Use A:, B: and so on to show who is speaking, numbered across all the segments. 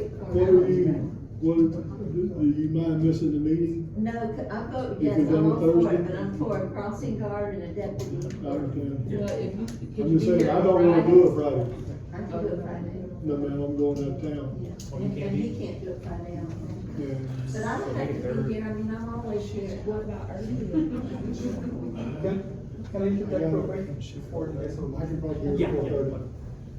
A: What were you, what, do you mind missing the meeting?
B: No, c- I vote
A: If
B: yes,
A: we're
B: I'm
A: done
B: all for
A: Thursday?
B: it, but I'm for a crossing guard and a deputy.
A: Okay.
C: Well, if you, could you
A: I'm
C: be
A: just saying,
C: here
A: I
C: on
A: don't wanna
C: Friday?
A: do it Friday.
B: I can do it Friday.
A: No, man, I'm going out of town.
B: Yeah.
D: Well, you
B: And
D: can't
B: and
D: be-
B: he can't do it Friday, I don't think.
A: Yeah.
B: But I don't have to be here, I mean, I'm always here.
C: What about earlier?
E: Can, can I interject real quick? Before you guys-
A: I could probably do
D: Yeah,
A: it
D: yeah.
A: before thirty.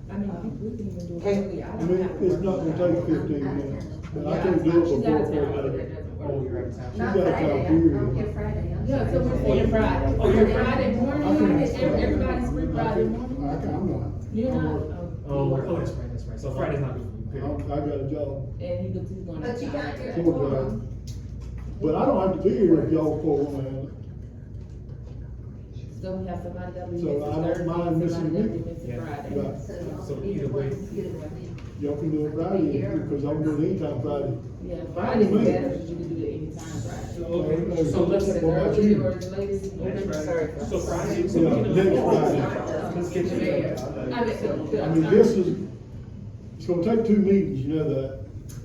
C: I mean, I think we can even do
E: Okay.
C: it earlier.
A: I
C: don't
A: mean,
C: have to
A: it's
C: worry
A: not
C: about
A: gonna take
C: it.
A: fifteen minutes, but I can do it
C: She's out of town,
A: before thirty.
C: it doesn't work.
E: Oh, you're out of town.
B: Not
A: got
B: Friday, I'm
A: time period.
B: I'm here Friday, I'm
C: Yeah,
B: sorry.
C: so we're saying Friday.
D: Oh, you're
C: Friday
A: I
C: morning,
A: can-
C: Friday, every- everybody's free Friday morning.
A: I can, I'm not.
C: You're
A: I'm
C: not,
A: working.
C: oh,
D: Oh, we're- oh, that's right, that's right, so Friday's not good for you,
A: I'm-
D: period.
A: I got a job,
C: and he goes, he's going to.
B: But you got your
A: Four drive.
B: forum.
A: but I don't have to be here if y'all four wanna have it.
C: So we have somebody that we
A: So
C: missing
A: I don't
C: Thursday,
A: mind
C: somebody
A: missing
C: that
A: the
C: we
A: meeting.
C: missing
D: Yeah.
C: Friday.
A: Right.
B: So
D: So
B: either
D: either
B: one,
D: way.
B: either one.
A: Y'all can do it Friday, because I'm doing anytime Friday.
C: Yeah,
A: Friday
C: Friday's
A: morning.
C: better, because you can do it anytime Friday.
D: Okay, so let's,
C: Whether
A: What about
C: early
A: you?
C: or the latest,
D: Next
C: November
D: Friday.
C: third.
D: so Friday, so
A: Yeah,
D: we can.
A: next
B: Friday.
D: Let's get you there.
C: I mean, so-
A: I mean, this is, it's gonna take two meetings, you know that.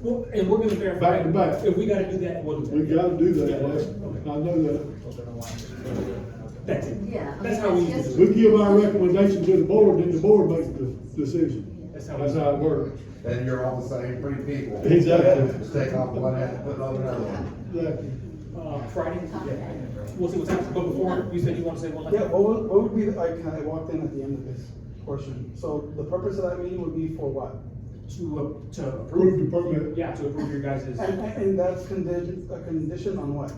D: Well, and we're gonna verify.
A: Back to back.
D: If we gotta do that, we'll do that.
A: We gotta do that,
D: Yeah,
A: that's,
D: okay.
A: I know that.
D: That's it.
B: Yeah.
D: That's how we
B: Yes.
D: usually do
A: We give our recommendation to the board, then the board makes the decision.
D: it. That's how we-
A: That's how it works.
F: Then you're all the same three people.
A: Exactly.
F: Just take off one hat and put on another one.
A: Exactly.
D: Uh, Friday, yeah, we'll see what's happening, but before, you said you want to say one last?
E: Yeah, what would, what would be, the- I kind of walked in at the end of this portion. So the purpose of that meeting would be for what?
D: To, uh, to
A: Approve
D: approve,
A: the permit.
D: yeah, to approve your guys'
E: And, and that's condition, a condition on what?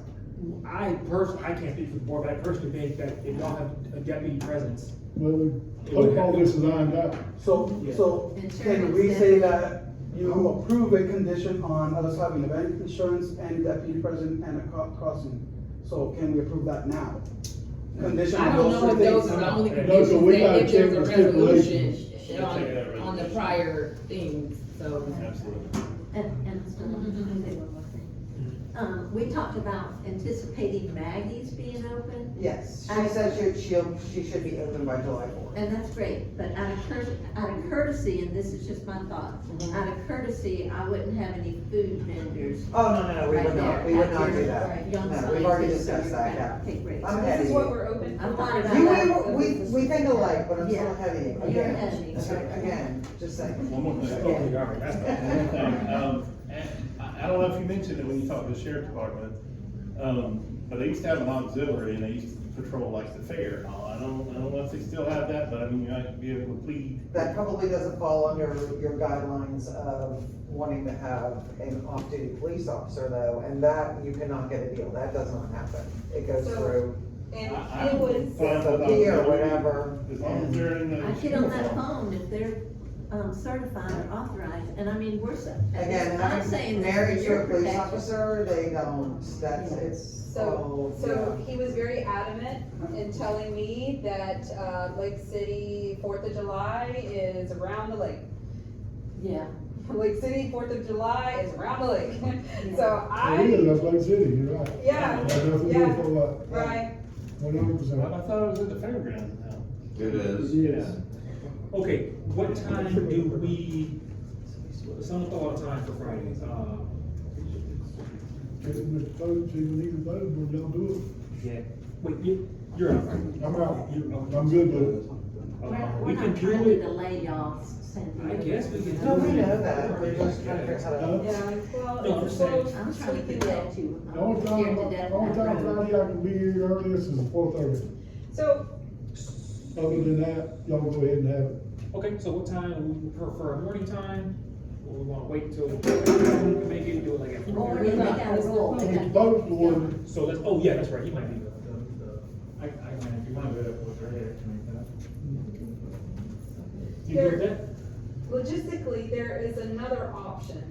D: I personally, I can't speak for the board, but I personally think that if y'all have a deputy presence,
A: Well, hope all this is ironed out.
E: So, so can we say that you approve a condition on us having event insurance and deputy president and a co- crossing? So can we approve that now? Condition
C: I
E: on
C: don't
E: those
C: know
E: two
C: if those are
E: things.
C: the only
D: No, so
C: conditions,
A: we
C: that
A: gotta
C: if there's a
A: check the stipulation.
C: resolution on, on the prior things, so.
B: And, and so, let me say one more thing. Um, we talked about anticipating Maggie's being open,
G: Yes, she said she, she'll, she should be open by July fourth.
B: and that's great, but out of courtesy, out of courtesy, and this is just my thought,
G: Mm-hmm.
B: out of courtesy, I wouldn't have any food vendors
G: Oh, no, no, no, we would not, we would not do that.
B: Right there, right,
G: No, we've already discussed that, yeah.
B: Okay, great.
G: I'm
B: You-
G: heavy.
C: we're open
B: I'm not about
G: You,
B: that.
G: we, we, we think alike, but I'm
B: Yeah.
G: still heavy.
B: You're
G: Again,
B: heavy.
G: Again, just saying.
H: One more thing.
D: okay, all right, that's.
H: One thing, um, and I, I don't know if you mentioned it when you talked to the sheriff department, um, but they used to have an auxiliary and they used to patrol like the fair. I don't, I don't know if they still have that, but I mean, you might be able to plead.
G: That probably doesn't fall under your guidelines of wanting to have an off-duty police officer though, and that, you cannot get a deal, that does not happen. It goes
I: So-
G: through,
I: And
H: I-
I: it
H: I'm
I: was,
H: fine with
G: a P or
H: auxiliary,
G: whatever,
H: As long as
G: and-
H: they're in the.
B: I get on that
H: uniform.
B: phone if they're, um, certified or authorized, and I mean, we're, so-
G: again,
B: I'm saying this
G: married
B: for
G: to
B: your
G: a police
B: protection.
G: officer, they don't, that's,
B: Yeah.
G: it's all,
I: so,
G: yeah.
I: so he was very adamant in telling me that, uh, Lake City, Fourth of July is around the lake.
B: Yeah,
I: Lake City, Fourth of July is around the lake.
A: It
I: So I,
A: is, that's Lake City, you're right.
I: yeah,
A: That's what we're
I: yeah,
A: for, like,
I: right.
A: one hundred
H: I
A: percent.
H: thought it was at the fairgrounds now.
F: It is.
A: Yes.
D: Okay, what time do we, someone thought of time for Friday, uh,
A: Get in the vote, see we need a vote, we'll y'all do
D: yeah, wait, you, you're out, right?
A: it. I'm out,
D: You're out.
A: I'm good with it.
D: Uh,
B: we're,
D: We
B: we're
D: can
B: not
D: do
B: trying to
D: it,
B: delay y'all's sending.
D: I guess we can.
G: No,
D: do
G: we
D: it.
G: know that, we're just trying to figure out how to.
I: Yeah,
D: No,
I: well,
D: I'm
I: it's
D: saying-
I: so
B: I'm trying to
I: squeaky wheel.
B: protect you.
A: The
B: I'm
A: only
B: scared
A: time,
B: to death.
A: the only time Friday I can be here earliest is four thirty.
I: So,
A: Other than that, y'all go ahead and have it.
D: Okay, so what time, we prefer a morning time, or we wanna wait till, maybe do it like at four?
B: Morning, they got a rule.
A: We can vote for it.
D: So that's, oh, yeah, that's right, he might be the, the, the, I, I might, if you wanna do that, we'll go ahead and make that. You heard that?
I: logistically, there is another option.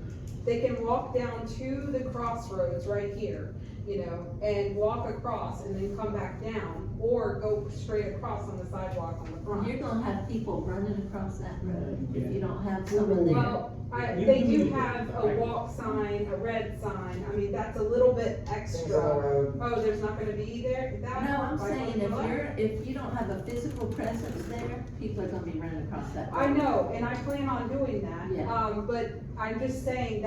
I: They can walk down to the crossroads right here, you know, and walk across and then come back down, or go straight across on the sidewalk on the
B: You're gonna
I: front.
B: have people running across that road
D: Yeah.
B: if you don't have someone there.
I: Well, I,
D: You-
I: they
D: you
I: do
D: need-
I: have a walk sign, a red sign, I mean, that's a little bit
G: Things on
I: extra.
G: the road.
I: Oh, there's not gonna be there,
B: No,
I: that.
B: I'm
I: like,
B: saying if
I: what?
B: you're, if you don't have a physical presence there, people are gonna be running across that road.
I: I know, and I plan on doing that,
B: Yeah.
I: um, but I'm just saying